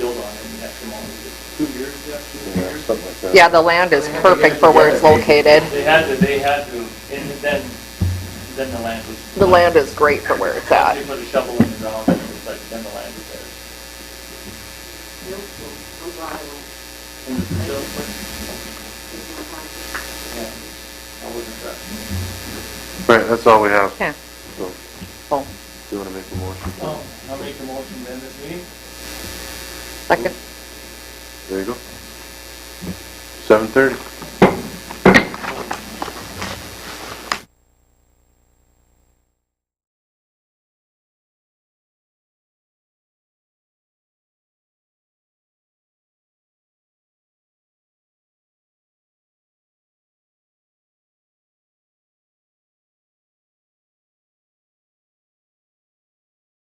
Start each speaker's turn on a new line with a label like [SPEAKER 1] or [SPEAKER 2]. [SPEAKER 1] two years, yeah, two
[SPEAKER 2] you know,
[SPEAKER 1] years.
[SPEAKER 2] something like that.
[SPEAKER 3] Yeah, the land is perfect for where it's located.
[SPEAKER 1] They had to, they had to, and then, then the land was.
[SPEAKER 3] The land is great for where it's at.
[SPEAKER 1] They put a shovel in the ground and it was like, then the land was theirs. And the yeah, I wasn't sure.
[SPEAKER 2] Right, that's all we have,
[SPEAKER 3] Yeah.
[SPEAKER 2] so, do
[SPEAKER 3] Well,
[SPEAKER 2] you wanna make a motion?
[SPEAKER 1] Oh, I'll make the motion then this meeting.
[SPEAKER 3] second,
[SPEAKER 2] There you go. Seven thirty.